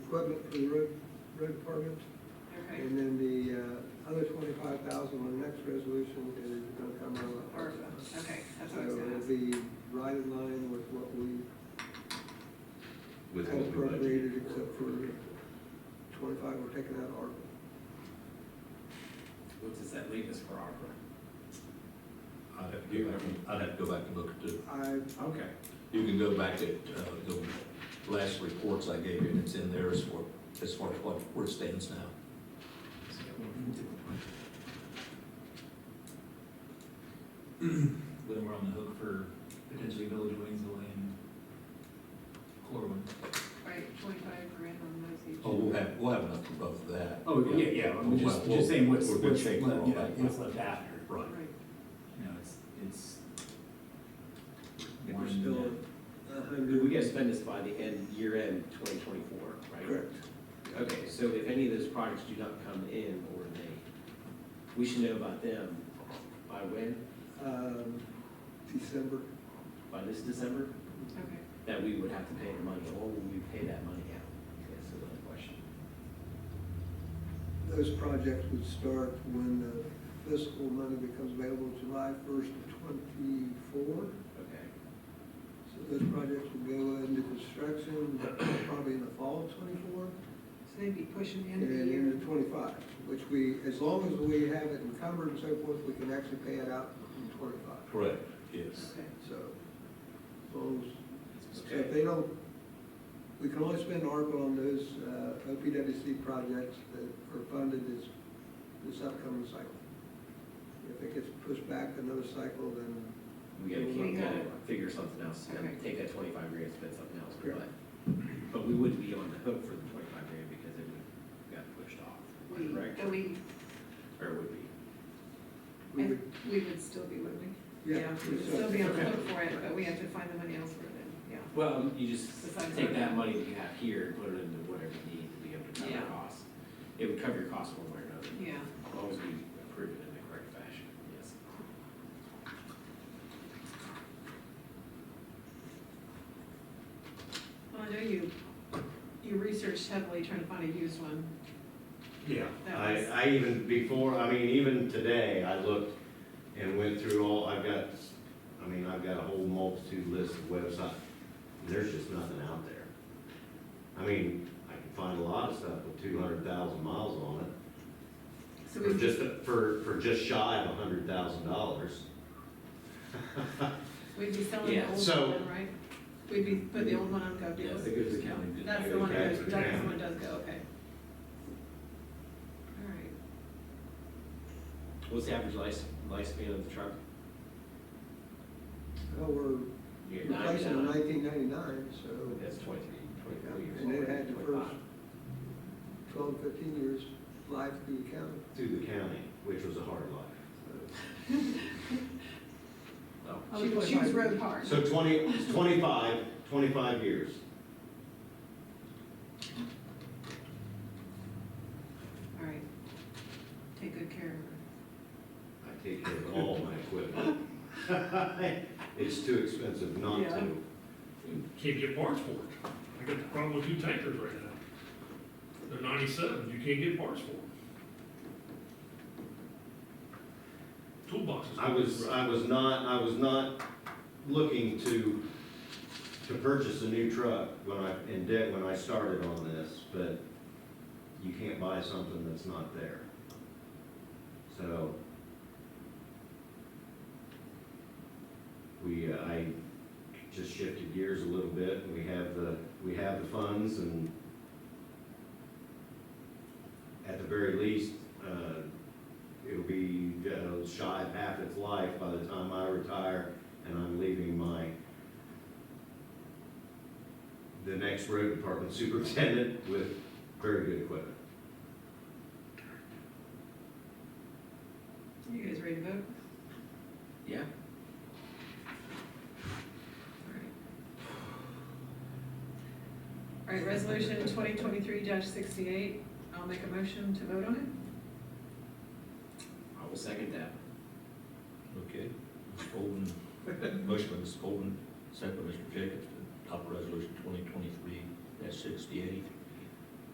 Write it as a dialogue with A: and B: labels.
A: equipment for the road, road department.
B: Okay,
A: And then the uh, other twenty-five thousand on the next resolution is gonna come out of
B: or,
A: ARPA.
B: okay, that's
A: So
B: what I was gonna
A: it'll
B: ask.
A: be right in line with what we
C: with
A: had
C: what we budgeted.
A: appropriated, except for twenty-five we're taking out of ARPA.
D: What does that leave us for ARPA?
C: I'd have to go back, and- I'd have to go back and look at the,
A: I,
D: Okay.
C: you can go back to, uh, the last reports I gave you, and it's in there as far, as far as what, where it stands now.
E: Then we're on the hook for potentially Village of Waynesville and Corwin.
B: Right, twenty-five grand on those each.
C: Oh, we'll have, we'll have enough for both of that.
E: Oh, yeah, yeah, I'm
C: We'll-
E: just,
C: we'll-
E: just saying what's,
C: we'll
E: what's
C: check all
E: left, yeah,
C: that.
E: what's left after.
C: Right.
B: Right,
E: You know, it's, it's.
A: we're
E: one,
A: still
E: uh,
A: a
D: We
A: hundred.
D: gotta spend this by the end, year end twenty twenty-four, right?
A: Correct.
D: Okay, so if any of those projects do not come in or they, we should know about them by when?
A: Um, December,
D: By this December?
B: okay.
D: That we would have to pay the money, or will we pay that money out? That's another question.
A: those projects would start when the fiscal money becomes available July first of twenty-four.
D: Okay.
A: So those projects would go into construction probably in the fall of twenty-four.
B: So they'd be pushing the
A: And
B: end of the
A: then
B: year.
A: into twenty-five, which we, as long as we have it encumbered and so forth, we can actually pay it out in twenty-five.
C: Correct, yes.
B: Okay,
A: So, as long as So if
D: Okay,
A: they don't, we can only spend ARPA on those uh, OPWC projects that are funded this, this upcoming cycle. If it gets pushed back another cycle, then
D: we gotta
B: We
D: keep,
B: gotta-
D: figure something else,
B: Okay.
D: and take that twenty-five grand, and spend something else,
A: Correct.
D: but, but we would be on the hook for the twenty-five grand because it would, got pushed off,
B: we,
D: correct?
B: and we,
D: Or it would be.
A: we would,
B: and we would still be, wouldn't we?
A: yeah.
B: We would still be on the
D: Okay.
B: hook for it, but we have to find the money elsewhere then, yeah.
D: Well, you just
B: Besides
D: take that
B: that.
D: money that you have here and put it into whatever you need to be able to cover your
B: Yeah.
D: costs. It would cover your costs one way or another,
B: Yeah,
D: as long as we approve it in the correct fashion, yes.
B: well, I know you, you researched heavily trying to find a used one.
F: Yeah,
B: That
F: I,
B: was-
F: I even before, I mean, even today, I looked and went through all, I've got, I mean, I've got a whole multitude list of websites. There's just nothing out there. I mean, I can find a lot of stuff with two hundred thousand miles on it,
B: So
F: for
B: we,
F: just, for, for just shy of a hundred thousand dollars.
B: we'd be selling the
D: Yeah,
B: old
F: so-
B: one, right? We'd be, put the old one on
D: Yeah,
B: GovDeals.
D: the good the county did.
B: That's
D: that.
B: the one, that
F: Okay,
B: goes-
F: for
B: that's the
F: now.
B: one that does go, okay. All right,
D: What's the average life, lifespan of the truck?
A: Well, oh, we're
D: You're
A: replacing in
D: 99.
A: nineteen ninety-nine, so
D: That's twenty-three, twenty-four years.
A: And it
D: old,
A: had the
D: 25.
A: first- 12, 15 years life through the county.
F: To the county, which was a hard life.
A: So
D: Oh,
A: I was
B: she was, she
A: like-
B: was road hard.
F: So twenty, twenty-five, twenty-five years.
B: All right, take good care of her.
F: I take care of all my equipment. It's too expensive not
B: Yeah.
F: to.
G: Can't get parts for it. I got the problem with two tankers right now. They're ninety-seven, you can't get parts for them. Toolboxes.
F: I was, I was not, I was not looking to, to purchase a new truck when I, in debt, when I started on this, but you can't buy something that's not there. So. We, uh, I just shifted gears a little bit, and we have the, we have the funds, and at the very least, uh, it'll be uh, shy of half its life by the time I retire and I'm leaving my, the next road department superintendent with very good equipment.
B: You guys ready to vote?
D: Yeah,
B: All right. All right, resolution twenty twenty-three sixty-eight, I'll make a motion to vote on it.
D: I will second that.
C: Okay. Ms. Golden, motion by Ms. Golden, second by Mr. Jacobs, to adopt resolution twenty twenty-three sixty-eight.